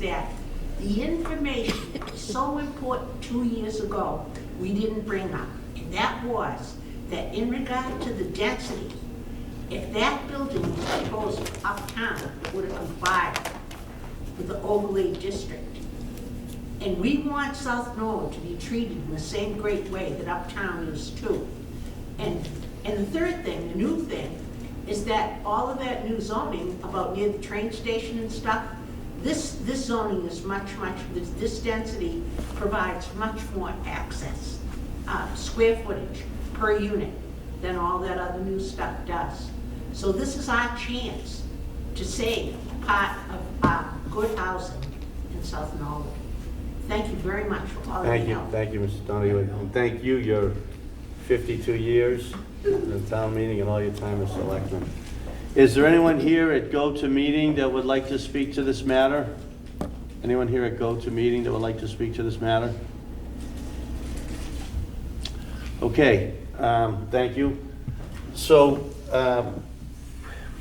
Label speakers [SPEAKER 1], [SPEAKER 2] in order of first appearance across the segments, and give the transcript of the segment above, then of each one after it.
[SPEAKER 1] that the information so important two years ago, we didn't bring up. And that was that in regard to the density, if that building was proposed uptown, would have complied with the overlay district. And we want South Norwood to be treated in the same great way that Uptown is too. And, and the third thing, the new thing, is that all of that new zoning about near the train station and stuff, this, this zoning is much, much, this, this density provides much more access, uh, square footage per unit than all that other new stuff does. So this is our chance to save part of our good housing in South Norwood. Thank you very much for all your
[SPEAKER 2] Thank you,
[SPEAKER 1] help.
[SPEAKER 2] thank you, Mr. Donahue, and thank you, your 52 years in the town meeting and all your time as selectman. Is there anyone here at go-to meeting that would like to speak to this matter? Anyone here at go-to meeting that would like to speak to this matter? Okay, um, thank you. So, um,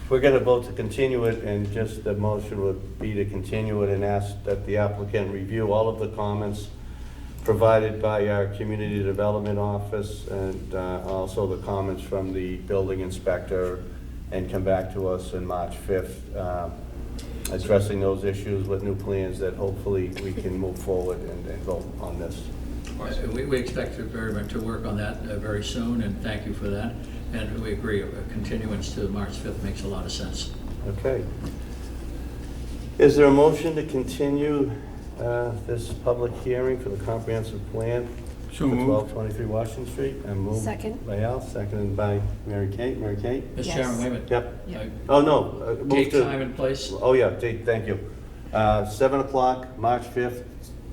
[SPEAKER 2] we're gonna vote to continue it, and just the motion would be to continue it and ask that the applicant review all of the comments provided by our community development office, and uh, also the comments from the building inspector, and come back to us on March 5th, um, addressing those issues with new plans that hopefully we can move forward and and vote on this.
[SPEAKER 3] Uh, We, we expect to very much to work on that uh, very soon, and thank you for that. And we agree, a continuance to March 5th makes a lot of sense.
[SPEAKER 2] Okay. Is there a motion to continue uh, this public hearing for the comprehensive plan?
[SPEAKER 4] So
[SPEAKER 2] for
[SPEAKER 4] moved.
[SPEAKER 2] 1223 Washington Street? And moved
[SPEAKER 5] Second.
[SPEAKER 2] by Al, seconded by Mary Kate. Mary Kate?
[SPEAKER 3] Mr.
[SPEAKER 5] Yes.
[SPEAKER 3] Chairman, wait a minute.
[SPEAKER 2] Yep.
[SPEAKER 3] Uh,
[SPEAKER 2] Oh, no. uh, move
[SPEAKER 3] Take
[SPEAKER 2] to-
[SPEAKER 3] time and place.
[SPEAKER 2] Oh, yeah, date, thank you. Uh, 7 o'clock, March 5th,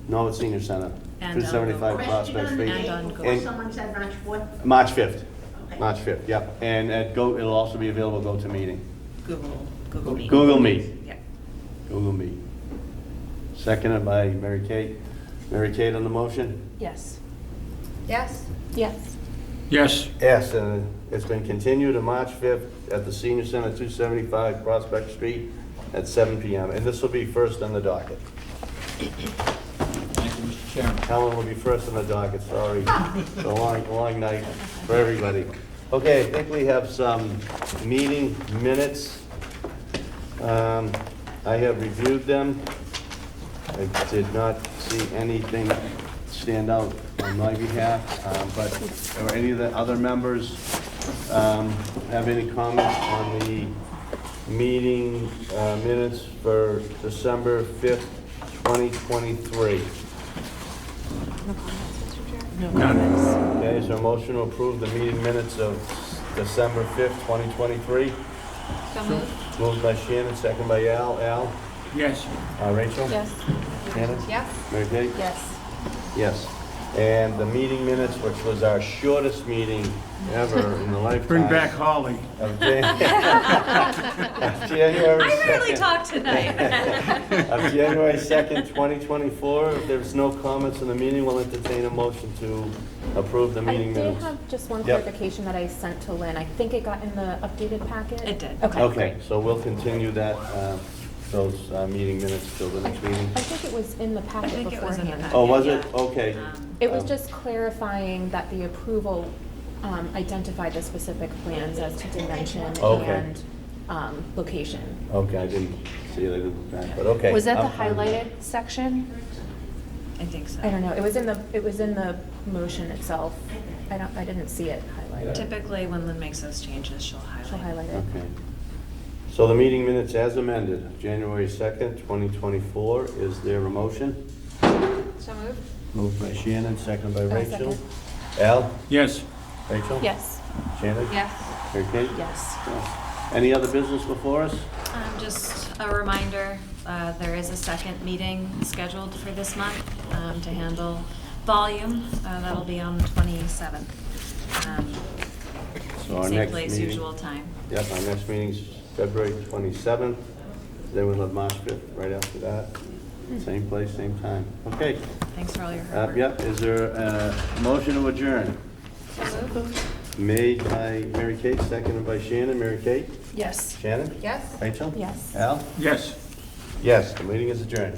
[SPEAKER 2] Norwood Senior Center,
[SPEAKER 6] And, uh,
[SPEAKER 2] 275 Prospect
[SPEAKER 1] Question on the
[SPEAKER 2] Street.
[SPEAKER 6] And
[SPEAKER 1] date
[SPEAKER 6] on
[SPEAKER 1] before
[SPEAKER 2] goals.
[SPEAKER 1] someone said March 4th?
[SPEAKER 2] March 5th,
[SPEAKER 1] Okay.
[SPEAKER 2] March 5th, yep. And at go, it'll also be available go to meeting.
[SPEAKER 6] Google, Google Meet.
[SPEAKER 2] Google Meet.
[SPEAKER 6] Yeah.
[SPEAKER 2] Google Meet. Seconded by Mary Kate. Mary Kate on the motion?
[SPEAKER 5] Yes.
[SPEAKER 7] Yes.
[SPEAKER 5] Yes.
[SPEAKER 4] Yes,
[SPEAKER 2] Yes, and it's been continued to March 5th at the Senior Center, 275 Prospect Street at 7 PM. And this will be first on the docket.
[SPEAKER 3] Thank you, Mr. Chairman.
[SPEAKER 2] Helen will be first on the docket, sorry. It's a long, long night for everybody. Okay, I think we have some meeting minutes. Um, I have reviewed them. I did not see anything stand out on my behalf, um, but, or any of the other members um, have any comments on the meeting uh, minutes for December 5th, 2023?
[SPEAKER 5] None.
[SPEAKER 2] Okay, is there a motion to approve the meeting minutes of December 5th, 2023?
[SPEAKER 7] So moved.
[SPEAKER 2] Moved by Shannon, second by Al. Al?
[SPEAKER 4] yes,
[SPEAKER 2] Uh, Rachel?
[SPEAKER 5] Yes.
[SPEAKER 2] Shannon?
[SPEAKER 7] Yes.
[SPEAKER 2] Mary Kate?
[SPEAKER 5] Yes.
[SPEAKER 2] Yes. And the meeting minutes, which was our shortest meeting ever in the lifetime.
[SPEAKER 4] bring back Holly.
[SPEAKER 2] Of Jan- of January 2nd.
[SPEAKER 6] tonight.
[SPEAKER 2] Of January 2nd, 2024. If there's no comments in the meeting, we'll entertain a motion to approve the
[SPEAKER 8] I
[SPEAKER 2] meeting
[SPEAKER 8] did
[SPEAKER 2] minutes.
[SPEAKER 8] have just one
[SPEAKER 2] Yep.
[SPEAKER 8] clarification that I sent to Lynn. I think it got in the updated packet.
[SPEAKER 6] It did.
[SPEAKER 8] Okay,
[SPEAKER 2] Okay,
[SPEAKER 8] great.
[SPEAKER 2] so we'll continue that, uh, those uh, meeting minutes till the next meeting.
[SPEAKER 8] I think it was in the
[SPEAKER 6] I
[SPEAKER 8] packet
[SPEAKER 6] think it was in the.
[SPEAKER 8] beforehand.
[SPEAKER 2] Oh, was it?
[SPEAKER 6] packet, yeah.
[SPEAKER 2] Okay.
[SPEAKER 6] Um,
[SPEAKER 8] It was
[SPEAKER 2] Um,
[SPEAKER 8] just clarifying that the approval um, identified the specific plans as to dimension
[SPEAKER 2] Okay.
[SPEAKER 8] and um, location.
[SPEAKER 2] Okay, I didn't see it, I didn't, look back, but okay.
[SPEAKER 8] Was that
[SPEAKER 2] I'm
[SPEAKER 8] the
[SPEAKER 2] fine.
[SPEAKER 8] highlighted section?
[SPEAKER 6] I think so.
[SPEAKER 8] I don't know. It was in the, it was in the motion itself. I don't, I didn't see it highlighted.
[SPEAKER 6] Typically, when Lynn makes those changes, she'll highlight.
[SPEAKER 8] She'll highlight it.
[SPEAKER 2] Okay. So the meeting minutes as amended, January 2nd, 2024, is there a motion?
[SPEAKER 7] So moved.
[SPEAKER 2] Moved by Shannon, second by
[SPEAKER 8] Oh,
[SPEAKER 2] Rachel.
[SPEAKER 8] second.
[SPEAKER 2] Al?
[SPEAKER 4] Yes,
[SPEAKER 2] Rachel?
[SPEAKER 8] Yes,
[SPEAKER 2] Shannon?
[SPEAKER 7] Yes.
[SPEAKER 2] Mary Kate?
[SPEAKER 8] yes.
[SPEAKER 2] Yes. Any other business before us?
[SPEAKER 9] Um, Just a reminder, uh, there is a second meeting scheduled for this month um, to handle volume. Uh, That'll be on the 27th. Um,
[SPEAKER 2] So our
[SPEAKER 9] Same
[SPEAKER 2] next
[SPEAKER 9] place,
[SPEAKER 2] meeting-
[SPEAKER 9] usual time.
[SPEAKER 2] Yep, our next meeting's February 27th. Then we'll have March 5th right after that. Same place, same time. Okay.
[SPEAKER 9] Thanks for all your hard
[SPEAKER 2] Uh,
[SPEAKER 9] work.
[SPEAKER 2] Yep, is there a motion to adjourn? Made by Mary Kate, seconded by Shannon. Mary Kate?
[SPEAKER 5] Yes.
[SPEAKER 2] Shannon?
[SPEAKER 7] Yes.
[SPEAKER 2] Rachel?
[SPEAKER 8] Yes.
[SPEAKER 2] Al?
[SPEAKER 4] yes.
[SPEAKER 2] Yes, the meeting is adjourned.